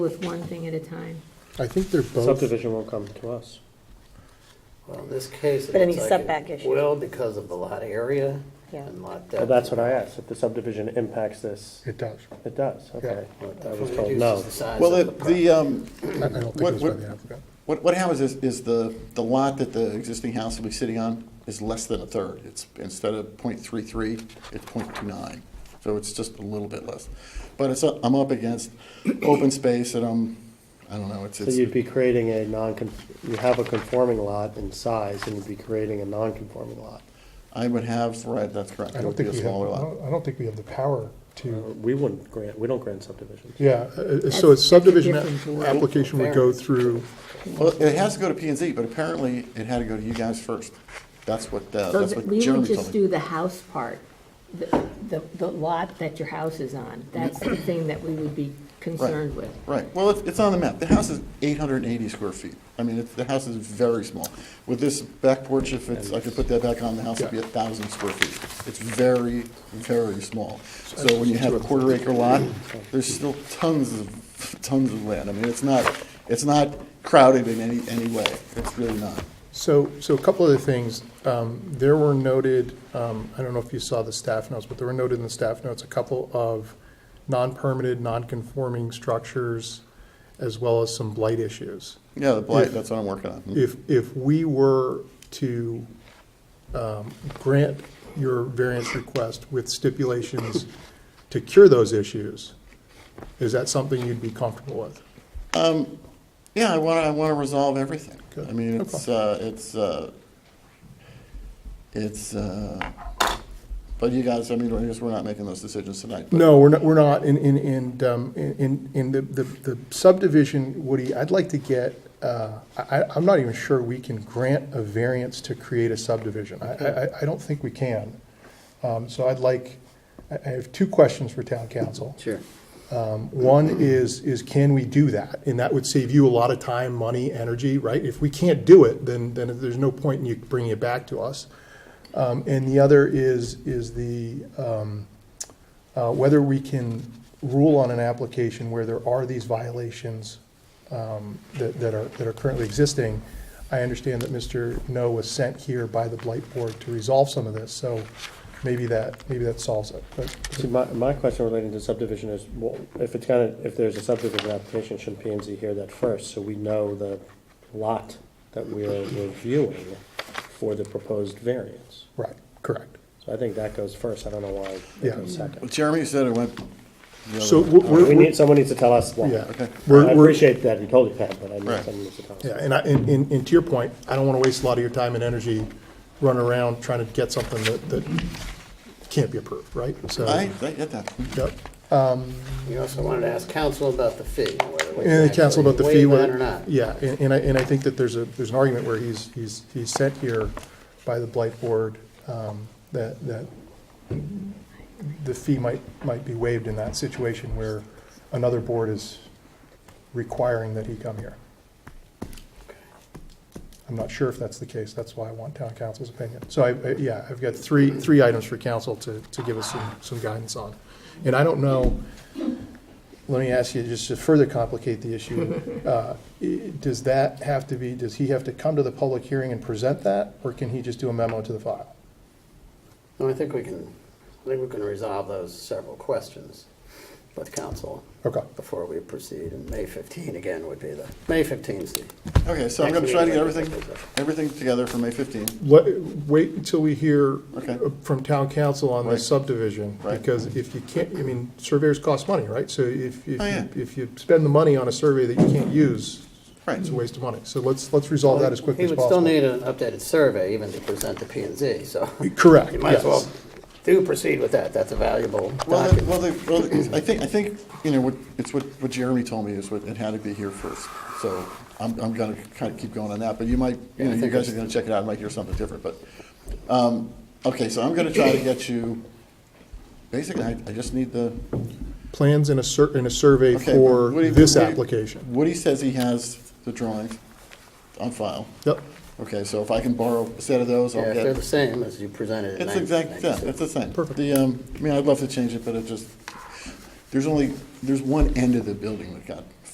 with one thing at a time. I think they're both, Subdivision won't come to us. Well, in this case, it But any looks like setback it issue. will because of the lot area Yeah. and lot depth. Well, that's what I asked, if the subdivision impacts this, it does. it does, okay. But I it was told reduces no. the size Well, of the, the, um, I I don't think What- it was by what- the applicant. what, what happens is, is the, the lot that the existing house will be sitting on is less than a third. It's, instead of .33, it's .29, so it's just a little bit less. But it's, up- I'm up against open space and I'm, I don't know, it's, So it's. you'd be creating a non, you have a conforming lot in size, and you'd be creating a non-conforming lot. I would have, right, that's correct. I It don't would be think we a have, I smaller lot. Oh. don't I don't think we have the power to, We wouldn't grant, we don't grant subdivisions. yeah, uh, uh, That's- so a that's a subdivision different a- board. application would go through, Well, it has to go to P and Z, but apparently it had to go to you guys first. That's what, uh, So that's what we would Jeremy just told me. do the house part, the, the- the lot that your house is on. That's the thing that we would be concerned with. Right, well, it's, it's on the map. The house is eight hundred and eighty square feet. I mean, it's, the house is very small. With this back porch, if it's, I could put that back on, the house would be a thousand square feet. It's very, very small. So when you have a quarter acre lot, there's still tons of, tons of land. I mean, it's not, it's not crowded in any, any way. It's really not. so, so a couple other things. Um, There were noted, um, I don't know if you saw the staff notes, but there were noted in the staff notes, a couple of non-permitted, non-conforming structures, as well as some blight issues. Yeah, the blight, that's what I'm working on. If, if we were to um, grant your variance request with stipulations to cure those issues, is that something you'd be comfortable with? Yeah, I want to, I want to resolve everything. Good. I mean, No it's, uh, it's, uh, it's, uh, but you guys, I mean, I guess we're not making those decisions tonight. but- No, we're not, we're not, in, in, in, um, in- in, in the- the the subdivision, Woody, I'd like to get, uh, I, I- I'm not even sure we can grant a variance to create a subdivision. I- I, I, I don't think we can. Um, So I'd like, I I have two questions for town council. Um, Sure. One is, is can we do that? And that would save you a lot of time, money, energy, right? If we can't do it, then, then there's no point in you bringing it back to us. Um, and the other is, is the, um, uh, whether we can rule on an application where there are these violations, um, that, that are, that are currently existing. I understand that Mr. No was sent here by the Blight Board to resolve some of this, so maybe that, maybe that solves it. But See, my, my question relating to subdivision is, well, if it's kind of, if there's a subdivision application, shouldn't P and Z hear that first? So we know the lot that we're reviewing for the proposed variance. Right, correct. So I think that goes first, I don't know why Yeah. it goes second. Jeremy said it went. the other uh, So way. we're- we're- We need, someone needs to tell us why. Yeah. Okay. We're- I we're- appreciate that, you told you that, but I need Right. someone needs to tell us. Yeah, and I, and, and and to your point, I don't want to waste a lot of your time and energy running around trying to get something that, that can't be approved, right? So, I, I get that. yep. You also wanted to ask council about the fee, whether we And can the council about the actually fee, waive that whether. or not. Yeah, and, and I, and I think that there's a, there's an argument where he's, he's, he's sent here by the Blight Board, um, that, that the fee might, might be waived in that situation where another board is requiring that he come here. I'm not sure if that's the case, that's why I want town council's opinion. So I, I- yeah, I've got three, three items for council to, to give us some, some guidance on. And I don't know, let me ask you, just to further complicate the issue, uh, i- does that have to be, does he have to come to the public hearing and present that, or can he just do a memo to the file? No, I think we can, I think we can resolve those several questions with council Okay, before we proceed. And May 15 again would be the, May 15th. 's the- Okay, so I'm Next going to try to get meeting. everything, everything together for May 15. Let, wait until we hear uh, Okay. from town council on the Right. subdivision, Right. because if you can't, I mean, surveyors cost money, right? So if, if, Oh, yeah. you- if you spend the money on a survey that you can't use, Right. it's a waste of money. So let's, let's resolve that as quickly as possible. He would still need an updated survey even to present to P and Z, so. Correct, You might as well yes. do proceed with that. That's a valuable Well, the- document. well, the- well, the- I think, I think, you know, what, it's what, what Jeremy told me is what, it had to be here first. So I'm, I'm gonna kind of keep going on that, but you might, you Yeah, I know, you think guys are it's- gonna check it out, and might hear something different, but, um, okay, so I'm gonna try to get you, basically, I, I just need the. Plans in a sur, in a survey okay, for Woody- this Woody- application. Woody says he has the drawings on file. Yep, Okay, so if I can borrow a set of those, Yeah, I'll if get. they're the same as you presented in It's 1996. exact, yeah, it's the same. Perfect. The, um, I mean, I'd love to change it, but it just, there's only, there's one end of the building that got